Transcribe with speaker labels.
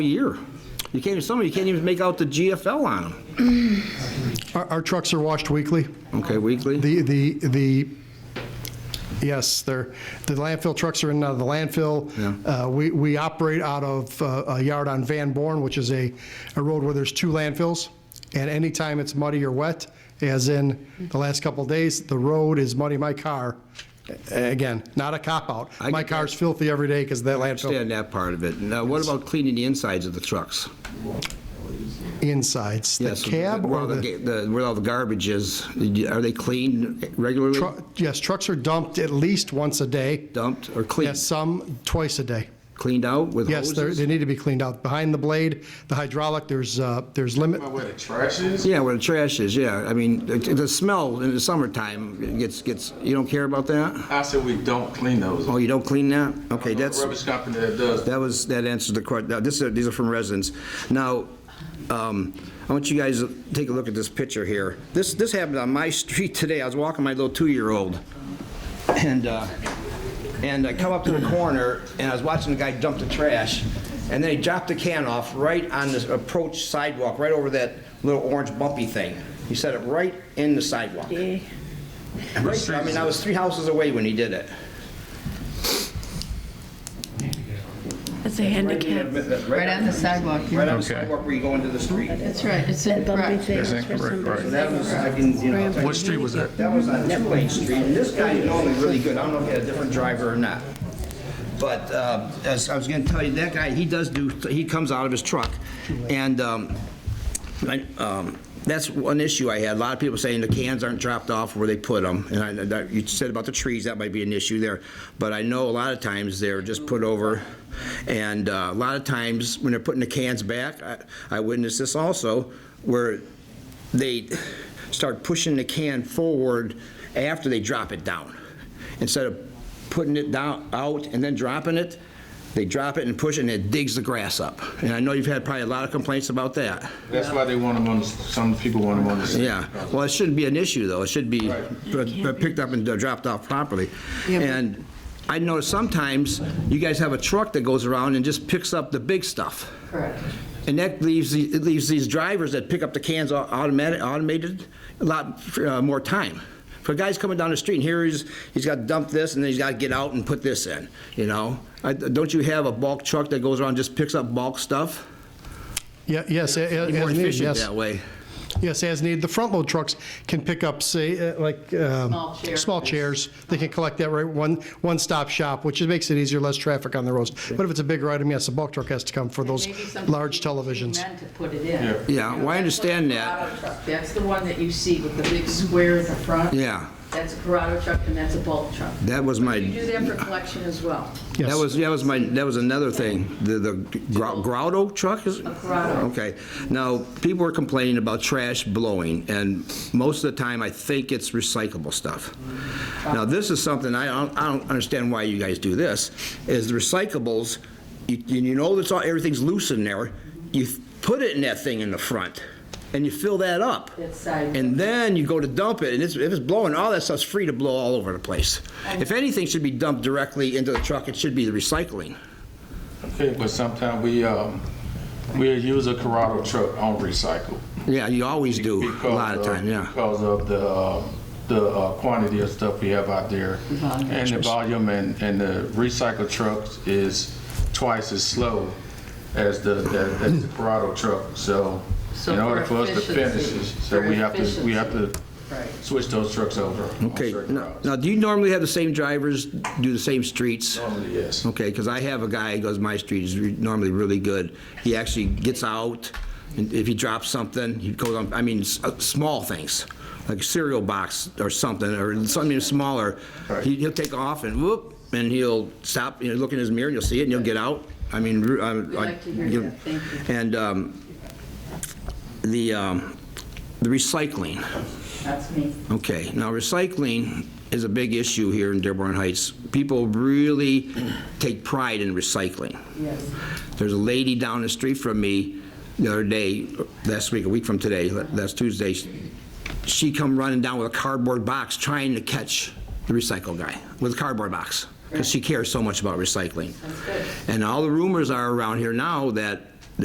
Speaker 1: year. You can't, even some of you can't even make out the GFL on them.
Speaker 2: Our our trucks are washed weekly.
Speaker 1: Okay, weekly?
Speaker 2: The, the, the, yes, they're, the landfill trucks are in uh, the landfill.
Speaker 1: Yeah.
Speaker 2: Uh, We, we operate out of uh, a yard on Van Born, which is a, a road where there's two landfills. And anytime it's muddy or wet, as in the last couple of days, the road is muddy. My car, a- again, not a cop-out.
Speaker 1: I
Speaker 2: My
Speaker 1: get that.
Speaker 2: car's filthy every day because of that landfill
Speaker 1: Understand that part of it. Now, what about cleaning the insides of the trucks?
Speaker 2: insides. The
Speaker 1: Yes,
Speaker 2: cab
Speaker 1: where
Speaker 2: or
Speaker 1: all the
Speaker 2: the,
Speaker 1: ga- the, where all the garbage is, are they cleaned regularly?
Speaker 2: tru- yes, trucks are dumped at least once a day.
Speaker 1: Dumped or cleaned?
Speaker 2: Yes, some twice a day.
Speaker 1: Cleaned out with
Speaker 2: Yes,
Speaker 1: hoses?
Speaker 2: they're- they need to be cleaned out. Behind the blade, the hydraulic, there's, uh, there's limit,
Speaker 3: Where the trash is?
Speaker 1: Yeah, where the trash is, yeah. I mean, the- the smell in the summertime it gets, gets, you don't care about that?
Speaker 3: I said we don't clean those.
Speaker 1: Oh, you don't clean that? Okay, that's.
Speaker 3: Rubbish company that does.
Speaker 1: That was, that answers the question. Now, this, is- these are from residents. Now, um, I want you guys to take a look at this picture here. This, this happened on my street today. I was walking my little two-year-old. And, uh, and I come up to the corner, and I was watching the guy dump the trash. And then he dropped the can off right on this approach sidewalk, right over that little orange bumpy thing. He set it right in the sidewalk. Right, I mean, I was three houses away when he did it.
Speaker 4: It's a handicap.
Speaker 5: Right on the sidewalk.
Speaker 1: Right on the sidewalk where you go into the street.
Speaker 5: That's right, it's in, right.
Speaker 4: That's
Speaker 1: That was, I can, you know.
Speaker 6: What street was that?
Speaker 1: That was on Two-Lane Street, and this guy is normally really good, I don't know if he had a different driver or not. But uh, as I was gonna tell you, that guy, he does do, he comes out of his truck, and um, I- um, that's one issue I had, a lot of people saying the cans aren't dropped off where they put them, and I, that- you said about the trees, that might be an issue there, but I know a lot of times they're just put over, and uh, a lot of times when they're putting the cans back, I- I witnessed this also, where they start pushing the can forward after they drop it down. Instead of putting it down, out and then dropping it, they drop it and push it and it digs the grass up. And I know you've had probably a lot of complaints about that.
Speaker 3: That's why they want them on, the- some people want them on the. street.
Speaker 1: Yeah, well, it shouldn't be an issue, though. It should be p- p- picked up and dropped off properly. And I notice sometimes you guys have a truck that goes around and just picks up the big stuff.
Speaker 5: Correct.
Speaker 1: And that leaves, the- it leaves these drivers that pick up the cans au- automatic, automated, a lot uh, more time. For a guy's coming down the street and here he's, he's got to dump this and then he's got to get out and put this in, you know? I- Don't you have a bulk truck that goes around and just picks up bulk stuff?
Speaker 2: Yeah, yes, a- a-
Speaker 1: Be More
Speaker 2: as needed,
Speaker 1: efficient
Speaker 2: yes.
Speaker 1: that way.
Speaker 2: Yes, as needed. The front load trucks can pick up, say, uh, like, um,
Speaker 5: Small chairs.
Speaker 2: small chairs. They can collect that right, one, one-stop shop, which makes it easier, less traffic on the roads. But if it's a bigger item, yes, a bulk truck has to come for those
Speaker 5: Maybe some
Speaker 2: large
Speaker 5: people
Speaker 2: televisions.
Speaker 5: meant to put it in.
Speaker 1: Yeah, well, I understand that.
Speaker 5: That's a Corrado truck. That's the one that you see with the big square in the front.
Speaker 1: Yeah,
Speaker 5: That's a Corrado truck and that's a bulk truck.
Speaker 1: that was my.
Speaker 5: You do that for collection as well.
Speaker 1: That
Speaker 2: Yes.
Speaker 1: was, that was my, that was another thing, the, the grou- Grotto truck is?
Speaker 5: Grotto.
Speaker 1: Okay, now, people were complaining about trash blowing, and most of the time, I think it's recyclable stuff. Now, this is something, I don't, I don't understand why you guys do this, is the recyclables, you, you know that's all, everything's loose in there, you put it in that thing in the front, and you fill that up.
Speaker 5: That side.
Speaker 1: And then you go to dump it, and it's, if it's blowing, all that stuff's free to blow all over the place. If anything should be dumped directly into the truck, it should be the recycling.
Speaker 3: Okay, but sometimes we, um, we use a Corrado truck on recycle.
Speaker 1: Yeah, you always do, a
Speaker 3: because uh,
Speaker 1: lot of time, yeah.
Speaker 3: Because of the, uh, the uh, quantity of stuff we have out there. And the volume and, and the recycle trucks is twice as slow as the, as as the Corrado truck. So
Speaker 5: So
Speaker 3: in
Speaker 5: for
Speaker 3: order for us to finish,
Speaker 5: efficiency-
Speaker 3: it, so
Speaker 5: for
Speaker 3: we have to, we have to
Speaker 5: Right.
Speaker 3: switch those trucks over. on
Speaker 1: Okay,
Speaker 3: certain
Speaker 1: now,
Speaker 3: routes.
Speaker 1: now, do you normally have the same drivers do the same streets?
Speaker 3: Normally, yes.
Speaker 1: Okay, because I have a guy, who goes, my street is re- normally really good. He actually gets out, and if he drops something, he goes on, I mean, s- uh, small things, like a cereal box or something, or something smaller. He- He'll take off and whoop, and he'll stop, you know, look in his mirror, and you'll see it, and he'll get out. I mean, ru- I-
Speaker 5: We like to hear
Speaker 1: you-
Speaker 5: that. Thank you.
Speaker 1: And um, the, um, the recycling.
Speaker 5: That's me.
Speaker 1: Okay, now recycling is a big issue here in Dearborn Heights. People really take pride in recycling.
Speaker 5: Yes.
Speaker 1: There's a lady down the street from me the other day, last week, a week from today, last Tuesday, she come running down with a cardboard box trying to catch the recycle guy with a cardboard box, because she cares so much about recycling.
Speaker 5: good.
Speaker 1: And all the rumors are around here now that